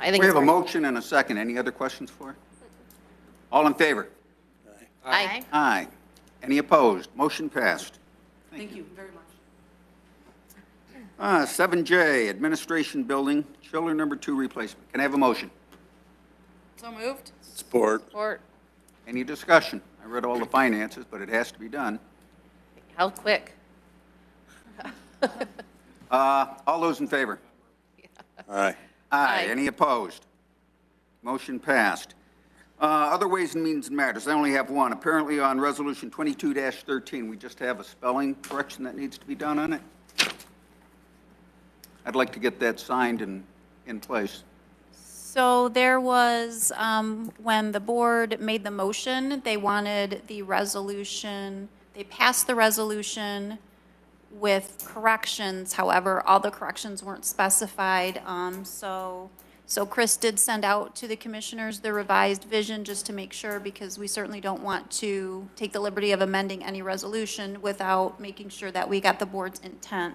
I think We it's have a great. motion and a second. Any other questions for? her? All in favor? Aye. Aye. Any opposed? Motion passed. Thank you very much. Uh, 7J, Administration Building, chiller number two replacement. Can I have a motion? So moved. Support. Support. Any discussion? I read all the finances, but it has to be done. How quick? Uh, All those in favor? Aye. Aye. Aye. Any opposed? Motion passed. Uh, Other Ways and Means Matters, I only have one. Apparently on Resolution 22-13, we just have a spelling correction that needs to be done on it. I'd like to get that signed and in place. So there was, um, when the board made the motion, they wanted the resolution, they passed the resolution with corrections, however, all the corrections weren't specified, um, so, so Chris did send out to the commissioners the revised vision, just to make sure, because we certainly don't want to take the liberty of amending any resolution without making sure that we got the board's intent.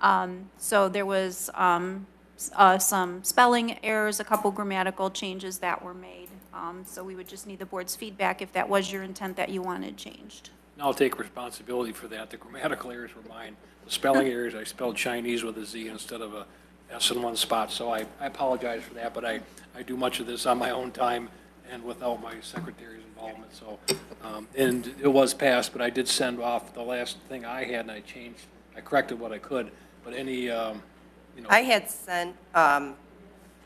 Um, So there was um, s- uh, some spelling errors, a couple grammatical changes that were made. Um, So we would just need the board's feedback if that was your intent that you wanted changed. And I'll take responsibility for that. The grammatical errors were mine. The spelling errors, I spelled Chinese with a Z instead of a S in one spot, so I, I apologize for that, but I, I do much of this on my own time and without my secretary's involvement, so. um, And it was passed, but I did send off the last thing I had, and I changed, I corrected what I could, but any, um, you know, I had sent um,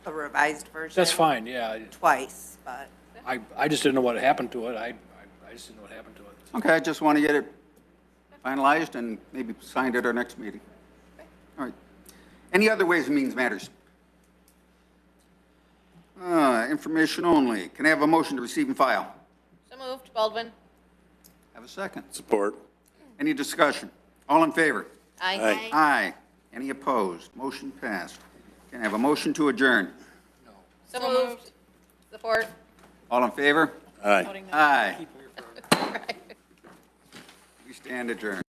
a revised version. that's fine, yeah. Twice, but I, I just didn't know what happened to it. I, I- I just didn't know what happened to it. Okay, I just want to get it finalized and maybe signed at our next meeting. All right. Any other Ways and Means Matters? Uh, Information only. Can I have a motion to receive and file? So moved. Baldwin. Have a second. Support. Any discussion? All in favor? Aye. Aye. Any opposed? Motion passed. Can I have a motion to adjourn? So moved. Support. All in favor? Aye. Aye. We stand adjourned.